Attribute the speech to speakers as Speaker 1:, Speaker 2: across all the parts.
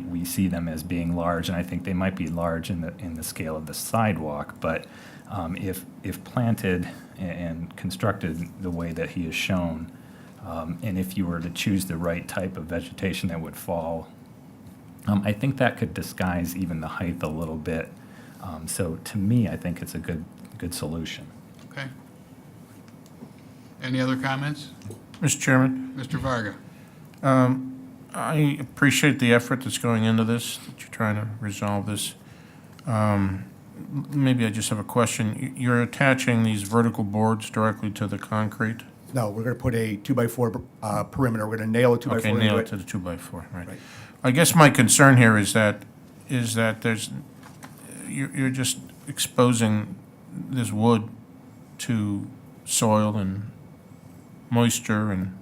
Speaker 1: we see them as being large, and I think they might be large in the, in the scale of the sidewalk, but um, if, if planted a- and constructed the way that he has shown, um, and if you were to choose the right type of vegetation that would fall um, I think that could disguise even the height a little bit. Um, so to me, I think it's a good good solution.
Speaker 2: Okay. Any other comments?
Speaker 3: Mr. Chairman,
Speaker 2: Mr. Varga?
Speaker 3: I appreciate the effort that's going into this, that you're trying to resolve this. Um, m- Maybe I just have a question. You- You're attaching these vertical boards directly to the concrete?
Speaker 4: No, we're going to put a two-by-four uh, perimeter. We're going to nail a two-by-four
Speaker 3: Okay,
Speaker 4: into
Speaker 3: nail it to the two-by-four, right.
Speaker 4: Right.
Speaker 3: I guess my concern here is that, is that there's, you're, you're just exposing this wood to soil and moisture and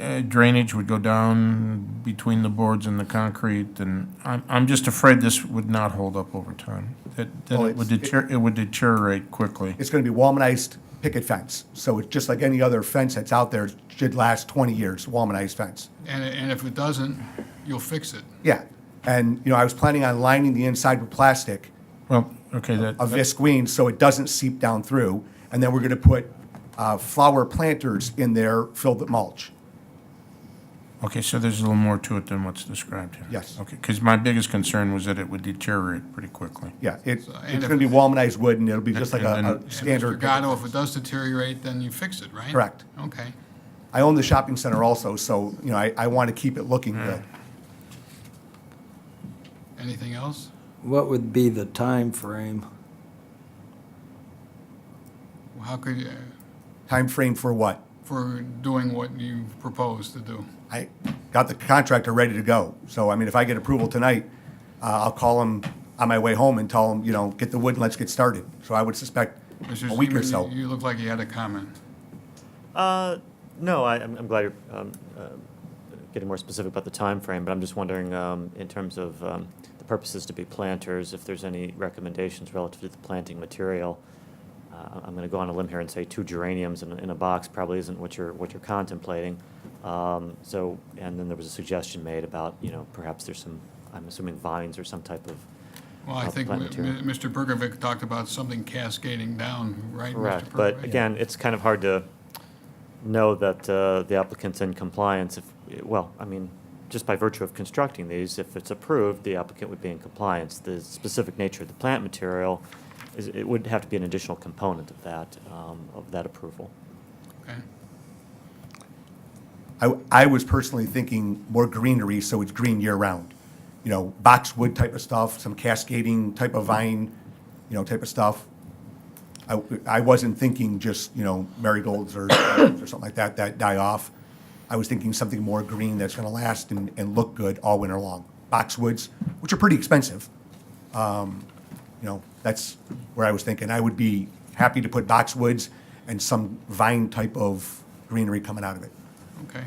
Speaker 3: uh, drainage would go down between the boards and the concrete, and I'm, I'm just afraid this would not hold up over time. That, that
Speaker 4: Well,
Speaker 3: it would
Speaker 4: it's-
Speaker 3: deter, it would deteriorate quickly.
Speaker 4: It's going to be Walmanized picket fence. So it's just like any other fence that's out there, it should last 20 years, Walmanized fence.
Speaker 2: And, and if it doesn't, you'll fix it.
Speaker 4: Yeah. And, you know, I was planning on lining the inside with plastic
Speaker 3: Well, okay, that.
Speaker 4: of visqueen so it doesn't seep down through. And then we're going to put uh, flower planters in there filled with mulch.
Speaker 3: Okay, so there's a little more to it than what's described here?
Speaker 4: Yes.
Speaker 3: Okay, because my biggest concern was that it would deteriorate pretty quickly.
Speaker 4: Yeah, it- it's
Speaker 2: and
Speaker 4: going
Speaker 2: if-
Speaker 4: to be Walmanized wood and it'll be just like
Speaker 3: And- and-
Speaker 4: a- a
Speaker 2: And Mr.
Speaker 4: standard.
Speaker 2: Gatto, if it does deteriorate, then you fix it, right?
Speaker 4: Correct.
Speaker 2: Okay.
Speaker 4: I own the shopping center also, so, you know, I, I want to keep it looking good.
Speaker 2: Anything else?
Speaker 5: What would be the time frame?
Speaker 2: How could, you-
Speaker 4: Time frame for what?
Speaker 2: for doing what you propose to do?
Speaker 4: I got the contractor ready to go. So, I mean, if I get approval tonight, uh, I'll call him on my way home and tell him, you know, get the wood and let's get started. So I would suspect
Speaker 2: Mr.
Speaker 4: a week or
Speaker 2: Seaman,
Speaker 4: so.
Speaker 2: You look like you had a comment.
Speaker 6: Uh, No, I- I'm I'm glad you're um, uh, getting more specific about the time frame, but I'm just wondering, um, in terms of um, the purposes to be planters, if there's any recommendations relative to the planting material. Uh, I'm going to go on a limb here and say two geraniums in a- in a box probably isn't what you're, what you're contemplating. Um, So, and then there was a suggestion made about, you know, perhaps there's some, I'm assuming vines or some type of.
Speaker 2: Well, I
Speaker 6: uh,
Speaker 2: think
Speaker 6: plant
Speaker 2: mi-
Speaker 6: material.
Speaker 2: mi- Mr. Bergovic talked about something cascading down, right? Mr.
Speaker 6: Correct, but
Speaker 2: Bergovic?
Speaker 6: again, it's kind of hard to know that uh, the applicant's in compliance if, well, I mean, just by virtue of constructing these, if it's approved, the applicant would be in compliance. The specific nature of the plant material is, it would have to be an additional component of that, um, of that approval.
Speaker 2: Okay.
Speaker 4: I, I was personally thinking more greenery, so it's green year-round. You know, boxwood type of stuff, some cascading type of vine, you know, type of stuff. I, I wasn't thinking just, you know, marigolds or, or something like that, that die off. I was thinking something more green that's gonna last and, and look good all winter long. Boxwoods, which are pretty expensive. Um, You know, that's where I was thinking. I would be happy to put boxwoods and some vine type of greenery coming out of it.
Speaker 2: Okay.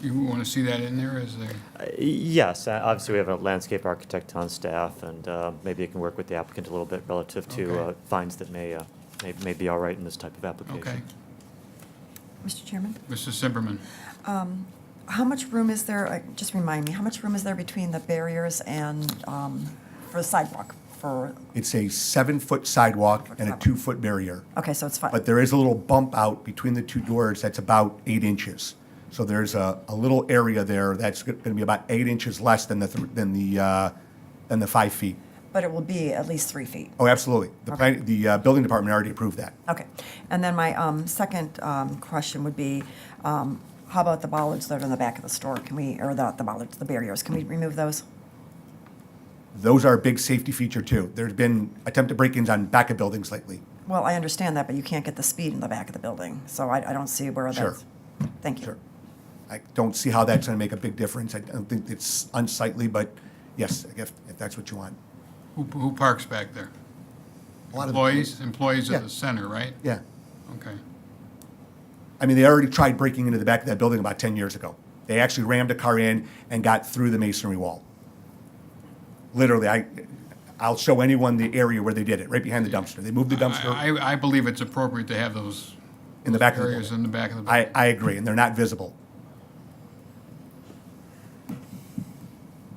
Speaker 2: You want to see that in there as a,
Speaker 6: Uh, Yes, uh, obviously, we have a landscape architect on staff, and uh, maybe it can work with the applicant a little bit relative to
Speaker 2: Okay.
Speaker 6: uh, fines that may, uh, may, may be all right in this type of
Speaker 2: okay.
Speaker 6: application.
Speaker 7: Mr. Chairman,
Speaker 2: Mrs. Simperman,
Speaker 7: how much room is there, uh, just remind me, how much room is there between the barriers and, um, for the sidewalk? For,
Speaker 4: It's a seven-foot sidewalk and a
Speaker 7: Sidewalk.
Speaker 4: two-foot barrier.
Speaker 7: okay, so it's fine.
Speaker 4: But there is a little bump out between the two doors that's about eight inches. So there's a, a little area there that's going to be about eight inches less than the, thr- than the, uh, than the five feet.
Speaker 7: But it will be at least three feet.
Speaker 4: Oh, absolutely. The plan, the uh, building department already approved that.
Speaker 7: Okay. And then my um, second um, question would be, um, how about the bollards that are in the back of the store? Can we, or the the bollards, the barriers, can we remove those?
Speaker 4: Those are a big safety feature too. There's been attempted break-ins on back of buildings lately.
Speaker 7: Well, I understand that, but you can't get the speed in the back of the building, so I I don't see where
Speaker 4: Sure.
Speaker 7: that's. Thank you.
Speaker 4: Sure. I don't see how that's going to make a big difference. I don't think it's unsightly, but yes, if, if that's what you want.
Speaker 2: who, who parks back there?
Speaker 4: A lot of-
Speaker 2: Employees, employees of
Speaker 4: Yeah.
Speaker 2: the center, right?
Speaker 4: Yeah.
Speaker 2: Okay.
Speaker 4: I mean, they already tried breaking into the back of that building about 10 years ago. They actually rammed a car in and got through the masonry wall. Literally, I, I'll show anyone the area where they did it, right behind the dumpster. They moved the dumpster
Speaker 2: I, I- I believe it's appropriate to have those
Speaker 4: in the back of the
Speaker 2: areas
Speaker 4: building.
Speaker 2: in the back of the.
Speaker 4: I, I agree, and they're not visible.